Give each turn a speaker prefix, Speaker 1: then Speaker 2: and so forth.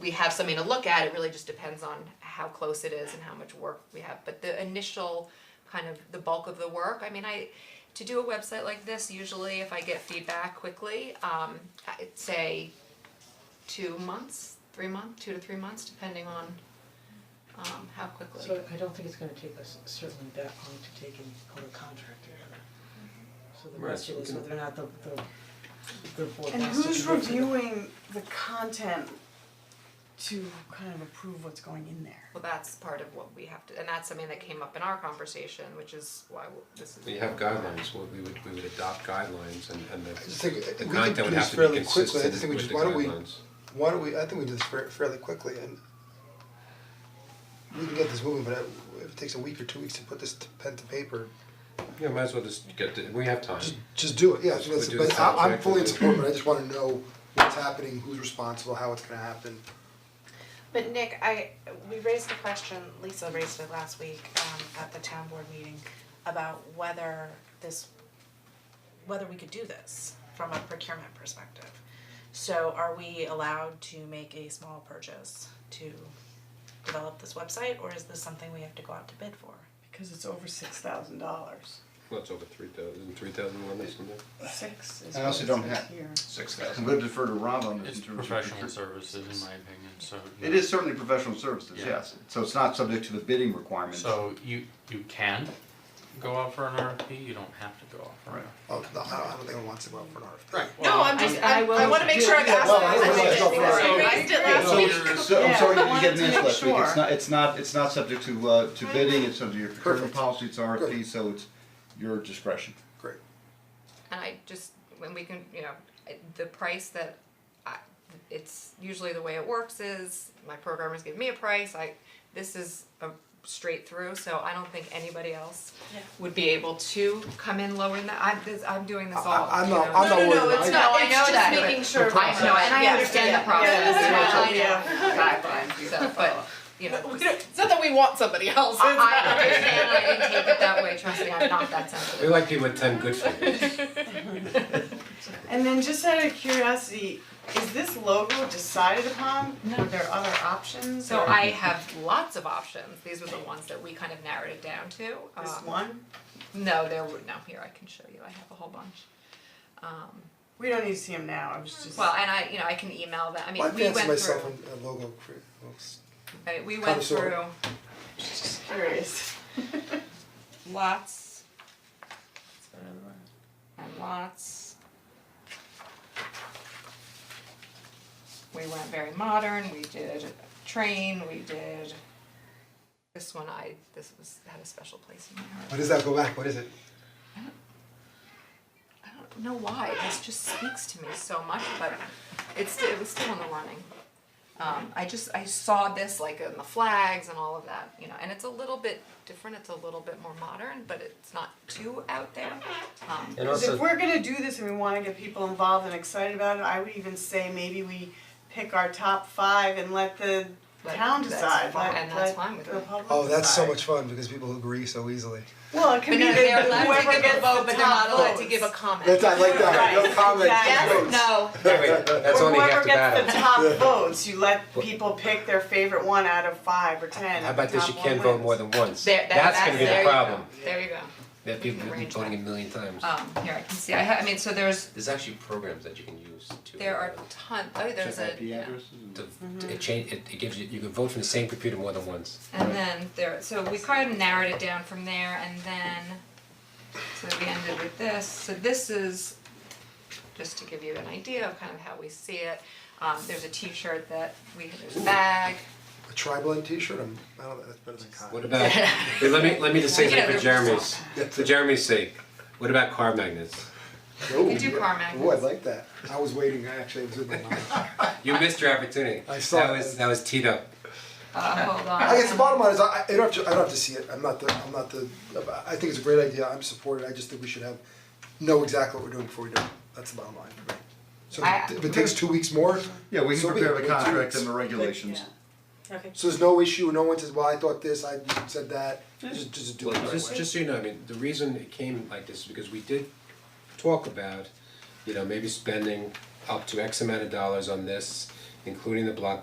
Speaker 1: we have something to look at, it really just depends on how close it is and how much work we have, but the initial kind of the bulk of the work, I mean, I, to do a website like this, usually if I get feedback quickly, um, I'd say two months, three months, two to three months, depending on um how quickly.
Speaker 2: So I don't think it's gonna take us certainly that long to take and go to contractor. So the
Speaker 3: Right, so
Speaker 2: question
Speaker 3: we
Speaker 2: is
Speaker 3: can-
Speaker 2: whether or not the the the board
Speaker 4: And
Speaker 2: wants to
Speaker 4: who's
Speaker 2: commit to that.
Speaker 4: reviewing the content to kind of approve what's going in there?
Speaker 1: Well, that's part of what we have to, and that's something that came up in our conversation, which is why w- this is.
Speaker 3: We have guidelines, we we would, we would adopt guidelines and and
Speaker 5: I
Speaker 3: the
Speaker 5: just think
Speaker 3: the
Speaker 5: we could
Speaker 3: content
Speaker 5: do
Speaker 3: would
Speaker 5: this
Speaker 3: have to be
Speaker 5: fairly quickly, I
Speaker 3: consistent
Speaker 5: just think we
Speaker 3: with
Speaker 5: just,
Speaker 3: the
Speaker 5: why don't we,
Speaker 3: guidelines.
Speaker 5: why don't we, I think we do this fa- fairly quickly and we can get this moving, but I- if it takes a week or two weeks to put this to pen to paper,
Speaker 3: Yeah, might as well just get, to- we have time.
Speaker 5: just just do it, yeah, so that's,
Speaker 3: We do
Speaker 5: but
Speaker 3: this
Speaker 5: I I'm fully
Speaker 3: objectively.
Speaker 5: in support, but I just wanna know what's happening, who's responsible, how it's gonna happen.
Speaker 6: But Nick, I, we raised a question, Lisa raised it last week, um, at the town board meeting about whether this, whether we could do this from a procurement perspective. So are we allowed to make a small purchase to develop this website, or is this something we have to go out to bid for?
Speaker 4: Because it's over six thousand dollars.
Speaker 3: Well, it's over three thousand, three thousand one or something.
Speaker 4: Six is
Speaker 7: I
Speaker 4: what it
Speaker 7: also don't
Speaker 4: says
Speaker 7: have-
Speaker 4: here.
Speaker 7: Six thousand. I'm gonna defer to Rob on this
Speaker 8: It's
Speaker 7: in terms of.
Speaker 8: professional
Speaker 7: procure-
Speaker 8: services, in my opinion, so.
Speaker 7: It is certainly professional services,
Speaker 8: Yeah.
Speaker 7: yes, so it's not subject to the bidding requirements.
Speaker 8: So you, you can go out for an RFP, you don't have to go out for an RFP.
Speaker 5: Oh, no, I don't, I don't think I want to go out for an RFP.
Speaker 6: No, I'm
Speaker 1: I-
Speaker 6: just,
Speaker 1: I
Speaker 6: I,
Speaker 1: will-
Speaker 6: I wanna make sure I've asked
Speaker 5: well,
Speaker 6: that,
Speaker 5: I
Speaker 6: I
Speaker 5: realize
Speaker 6: think
Speaker 5: I'll
Speaker 6: that-
Speaker 1: throw
Speaker 6: we
Speaker 1: it.
Speaker 6: raised it last
Speaker 7: So-
Speaker 6: week.
Speaker 7: So, I'm
Speaker 4: Yeah,
Speaker 7: sorry
Speaker 4: I
Speaker 7: you didn't
Speaker 4: wanted
Speaker 7: get
Speaker 4: to
Speaker 7: an answer
Speaker 4: make
Speaker 7: last week,
Speaker 4: sure.
Speaker 7: it's not, it's not, it's not subject to, uh, to bidding, it's subject to your procurement
Speaker 5: Perfect.
Speaker 7: policy, it's RFP,
Speaker 5: Good.
Speaker 7: so it's your discretion.
Speaker 5: Great,
Speaker 1: And I just, when we can, you know, I- the price that I, it's usually the way it works is my programmers give me a price, I, this is a straight through, so I don't think anybody else
Speaker 6: Yeah.
Speaker 1: would be able to come in lower than that. I'm, this, I'm doing this
Speaker 5: I-
Speaker 1: all,
Speaker 5: I'm
Speaker 1: you
Speaker 5: not-
Speaker 1: know.
Speaker 5: I'm not
Speaker 6: No, no, no,
Speaker 5: worried about
Speaker 6: it's
Speaker 5: it.
Speaker 1: No,
Speaker 6: not,
Speaker 1: I
Speaker 6: it's
Speaker 1: know
Speaker 6: just
Speaker 1: that, but-
Speaker 6: making sure.
Speaker 1: I know, and I
Speaker 6: Yeah,
Speaker 1: understand
Speaker 6: yeah,
Speaker 1: the process,
Speaker 6: yeah.
Speaker 1: I
Speaker 6: Yeah.
Speaker 1: know, guidelines, so, but, you know.
Speaker 6: It's not that we want somebody else,
Speaker 1: I I understand, I didn't take it that way, trust me, I'm not that sensitive.
Speaker 3: We like people with ten good figures.
Speaker 4: And then just out of curiosity, is this logo decided upon? Were there other options
Speaker 1: So
Speaker 4: or
Speaker 1: I have lots of options, these were the ones that we kind of narrowed it down to.
Speaker 4: This
Speaker 1: Um,
Speaker 4: one?
Speaker 1: No, there were, no, here, I can show you, I have a whole bunch.
Speaker 4: We don't need to see them now, I was just.
Speaker 1: Well, and I, you know, I can email them, I mean,
Speaker 5: Well, I
Speaker 1: we
Speaker 5: fancy
Speaker 1: went
Speaker 5: myself
Speaker 1: through,
Speaker 5: in a logo cre- looks-
Speaker 1: I mean, we
Speaker 5: Kinda
Speaker 1: went
Speaker 5: sorta.
Speaker 1: through
Speaker 4: Just curious.
Speaker 1: lots. And lots. We went very modern, we did train, we did. This one I, this was, had a special place in my heart.
Speaker 5: What does that go back, what is it?
Speaker 1: I don't know why, this just speaks to me so much, but it's, it was still in the running. Um, I just, I saw this like in the flags and all of that, you know, and it's a little bit different, it's a little bit more modern, but it's not too out there. Um,
Speaker 3: And
Speaker 4: Cause if
Speaker 3: also,
Speaker 4: we're gonna do this and we wanna get people involved and excited about it, I would even say maybe we pick our top five and let the
Speaker 1: Let-
Speaker 4: town
Speaker 1: that's
Speaker 4: decide,
Speaker 1: fine,
Speaker 4: let,
Speaker 1: and that's
Speaker 4: let
Speaker 1: fine with
Speaker 4: the
Speaker 1: me.
Speaker 4: public
Speaker 5: Oh, that's so
Speaker 4: decide.
Speaker 5: much fun because people agree so easily.
Speaker 4: Well, it can
Speaker 1: But
Speaker 4: be
Speaker 1: no, they're
Speaker 4: that
Speaker 1: allowed to
Speaker 4: whoever
Speaker 1: give
Speaker 4: gets
Speaker 1: a vote, but
Speaker 4: the
Speaker 1: they're not
Speaker 4: top
Speaker 1: allowed to
Speaker 4: votes.
Speaker 1: give a comment.
Speaker 5: That's, I like that, no
Speaker 4: Right.
Speaker 5: comment,
Speaker 4: Yes,
Speaker 5: votes.
Speaker 1: No,
Speaker 3: anyway, that's
Speaker 4: Or
Speaker 3: only half the
Speaker 4: Whoever
Speaker 3: battle.
Speaker 4: gets the top votes, you let people pick their favorite one out of five or ten.
Speaker 3: How about this, you can't vote more than once.
Speaker 1: there, that,
Speaker 3: That's
Speaker 1: that's,
Speaker 3: gonna be
Speaker 1: there
Speaker 3: the
Speaker 1: you go.
Speaker 3: problem,
Speaker 1: there you go.
Speaker 3: that people will be
Speaker 1: Arrange
Speaker 3: voting a million times.
Speaker 1: Um, here, I can see, I ha- I mean, so there's,
Speaker 3: There's actually programs that you can use to.
Speaker 1: there are Mm-hmm.
Speaker 3: uh,
Speaker 1: ton, oh, there's
Speaker 7: Check
Speaker 1: a,
Speaker 7: IP addresses and-
Speaker 3: to- to- It change, it it gives you, you can vote from the same computer more than once.
Speaker 1: And then there, so we kind of narrowed it down from there and then, so we ended with this, so this is, just to give you an idea of kind of how we see it, um, there's a t-shirt that we, there's a bag, Uh,
Speaker 5: A tri-blend t-shirt, I'm, I don't, that's better than cotton.
Speaker 3: What about, wait, let me, let me just say
Speaker 1: Yeah,
Speaker 3: something for
Speaker 1: they're-
Speaker 3: Jeremy's, for Jeremy's sake, what about car magnets?
Speaker 1: we do car
Speaker 5: Oh, I
Speaker 1: magnets.
Speaker 5: like that. I was waiting, I actually was with my mom.
Speaker 3: You missed your opportunity,
Speaker 5: I saw
Speaker 3: that
Speaker 5: it.
Speaker 3: was, that was teed up.
Speaker 1: Uh, hold on.
Speaker 5: I guess the bottom line is, I, I don't have to, I don't have to see it, I'm not the, I'm not the, I think it's a great idea, I'm supportive, I just think we should have, know exactly what we're doing before we do it, that's the bottom line for me. So
Speaker 1: I-
Speaker 5: if it takes two weeks more,
Speaker 7: Yeah, we
Speaker 5: So
Speaker 7: can
Speaker 5: we-
Speaker 7: prepare
Speaker 5: we
Speaker 7: the
Speaker 5: have two
Speaker 7: contract
Speaker 5: weeks.
Speaker 7: and the regulations.
Speaker 6: Okay.
Speaker 5: so there's no issue, no one says, well, I thought this, I said that, just, just do it the right way.
Speaker 3: Just, just so you know, I mean, the reason it came like this is because we did talk about, you know, maybe spending up to X amount of dollars on this, including the block